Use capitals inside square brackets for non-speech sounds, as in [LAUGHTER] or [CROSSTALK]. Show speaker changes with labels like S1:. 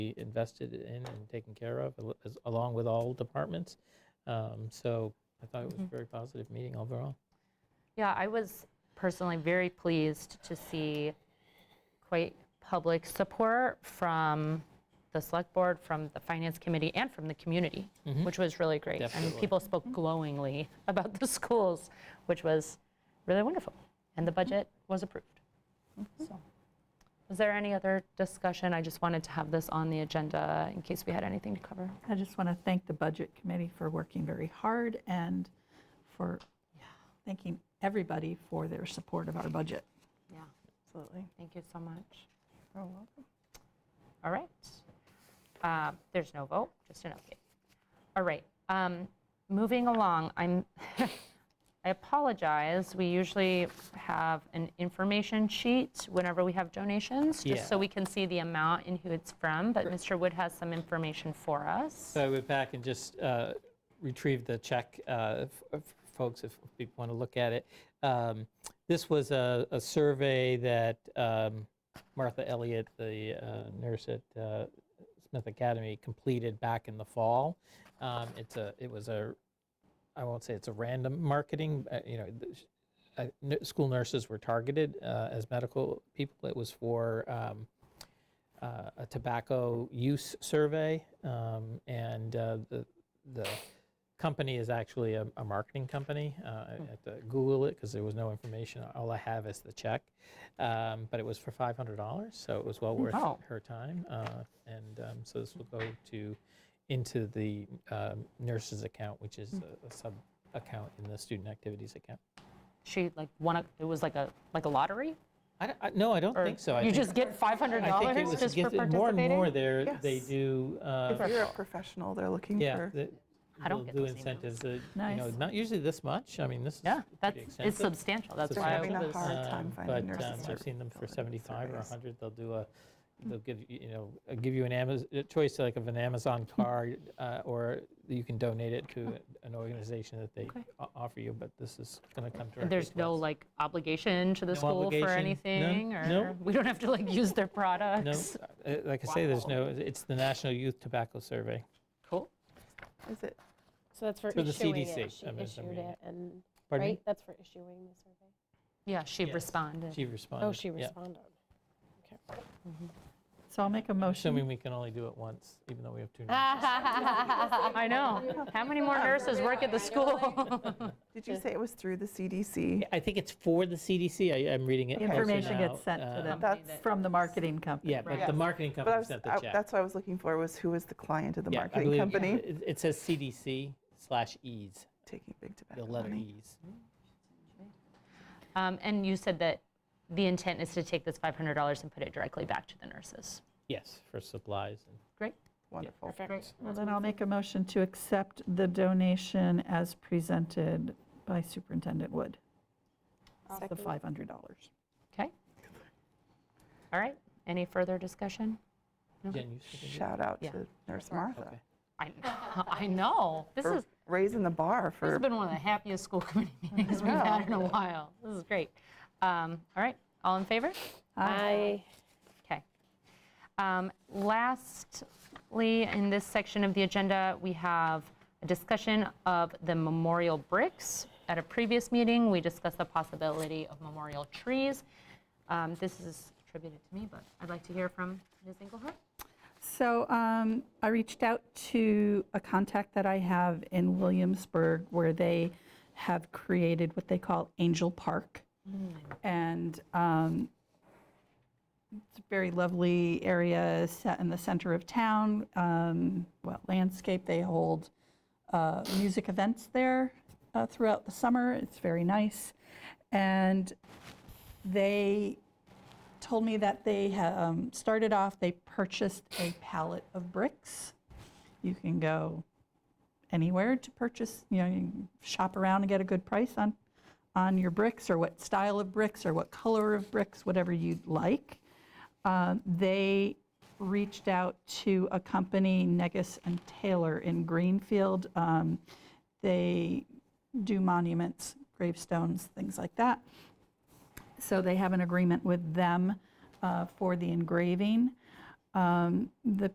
S1: be invested in and taken care of, al- as- along with all departments. Um, So I thought it was a very positive meeting overall.
S2: Yeah, I was personally very pleased to see quite public support from the select board, from the finance committee, and from the community, which was really great. And
S1: Definitely.
S2: people spoke glowingly [LAUGHS] about the schools, which was really wonderful. And the budget was approved. So, was there any other discussion? I just wanted to have this on the agenda in case we had anything to cover.
S3: I just want to thank the Budget Committee for working very hard and for thanking everybody for their support of our budget.
S2: Yeah.
S3: Absolutely.
S2: Thank you so much.
S3: You're welcome.
S2: All right. Uh, There's no vote, just an update. All right, um, moving along, I'm, [LAUGHS] I apologize, we usually have an information sheet whenever we have donations, just so
S1: Yeah.
S2: we can see the amount and who it's from, but Mr. Wood has some information for us.
S1: So I went back and just uh, retrieved the check, uh, f- f- folks, if people want to look at it. Um, This was a a survey that um, Martha Elliott, the uh, nurse at uh, Smith Academy, completed back in the fall. Um, It's a, it was a, I won't say it's a random marketing, uh, you know, th- sh- uh, n- school nurses were targeted uh, as medical people. It was for um, uh, a tobacco use survey, um, and uh, the the company is actually a, a marketing company. Uh, I I had to Google it because there was no information. All I have is the check, um, but it was for five hundred dollars, so it was well worth
S2: Oh, Wow.
S1: her time. Uh, and um, so this will go to into the um, nurses account, which is a, a sub account in the student activities account.
S2: She like won, a- it was like a, like a lottery?
S1: I, don't- I, no, I don't
S2: Or
S1: think so. I
S2: You
S1: think-
S2: just get
S1: I think it
S2: $500
S1: was
S2: just for
S1: gifted- more and more
S2: participating?
S1: there they
S4: Yes.
S1: do. Uh,
S4: If you're a professional, they're looking
S1: Yeah,
S4: for,
S1: the-
S2: I
S1: they'll
S2: don't get
S1: do
S2: those emails.
S1: incentives, uh, you know,
S3: Nice.
S1: not usually this much, I mean, this is
S2: Yeah,
S1: pretty
S2: that's, it's
S1: extensive.
S2: substantial, that's
S4: they're
S2: why. I
S4: having
S2: was-
S4: a hard time
S1: Um,
S4: finding
S1: But um,
S4: nurses.
S1: I've seen them for
S4: fill in
S1: 75 or
S4: surveys.
S1: 100, they'll do a, they'll give, you you know, uh, give you an Amazon, a choice like of an Amazon card, uh, or you can donate it to an organization that they
S2: Okay.
S1: o- offer you, but this is going to come directly to
S2: And There's no
S1: us.
S2: like obligation to the
S1: No
S2: school for
S1: obligation, none,
S2: anything, or
S1: no.
S2: we don't have to like use their
S1: No,
S2: products?
S1: uh, like I say, there's no, it's the National Youth Tobacco Survey.
S2: Cool.
S4: Is it,
S5: So that's for
S1: Through the
S5: issuing it.
S1: CDC,
S5: She
S1: I mean, if I'm
S5: issued
S1: reading
S5: it, and
S1: Pardon me?
S5: right, that's for issuing the survey.
S2: Yeah, she
S1: Yes.
S2: responded. [LAUGHS]
S1: She responded.
S5: Oh, she
S1: yeah.
S5: responded.
S3: So I'll make a motion.
S1: Assuming we can only do it once, even though we have two.
S2: Ah,
S1: nurses.
S2: I know. How many more nurses work at the school? [LAUGHS]
S4: did you say it was through the CDC?
S1: Yeah, I think it's for the CDC. I, I'm reading it.
S3: The
S4: Okay.
S1: also
S3: Information
S1: now,
S3: gets sent
S1: uh,
S3: to them
S4: That's,
S3: from the marketing company.
S1: Yeah, but
S4: Right.
S1: the marketing
S4: but I
S1: company
S4: was,
S1: sent the
S4: I-
S1: check.
S4: that's what I was looking for, was who was the client of the
S1: Yeah, I
S4: marketing
S1: believe
S4: company?
S1: It it says CDC slash E's,
S4: Taking big
S1: the
S4: tobacco
S1: letter
S4: money.
S1: E's.
S2: Um, And you said that the intent is to take this $500 and put it directly back to the nurses.
S1: Yes, for supplies. and-
S2: Great.
S4: Wonderful.
S5: Perfect.
S3: Well, then I'll make a motion to accept the donation as presented by Superintendent Wood. The $500.
S2: Okay. All right. Any further discussion?
S1: Jen, you seconded it?
S4: Shout out
S2: Yeah.
S4: to Nurse Martha
S2: I, [LAUGHS] I know. This
S4: for
S2: is,
S4: raising the bar
S2: This
S4: for,
S2: has been one of the happiest school [LAUGHS] committee meetings we've had in a while. This is great. Um, All right, all in favor?
S5: I
S2: Okay. Um, Lastly, in this section of the agenda, we have a discussion of the memorial bricks. At a previous meeting, we discussed the possibility of memorial trees. Um, This is attributed to me, but I'd like to hear from Ms. Engelhardt.
S3: So um, I reached out to a contact that I have in Williamsburg where they have created what they call Angel Park. And um, it's a very lovely area set in the center of town. Um, well, landscape, they hold uh, music events there uh, throughout the summer. It's very nice. And they told me that they um, started off, they purchased a pallet of bricks. You can go anywhere to purchase, you know, you can shop around and get a good price on, on your bricks or what style of bricks or what color of bricks, whatever you'd like. Uh, they reached out to a company, Negus and Taylor in Greenfield. Um, they do monuments, gravestones, things like that. So they have an agreement with them uh, for the engraving. Um, The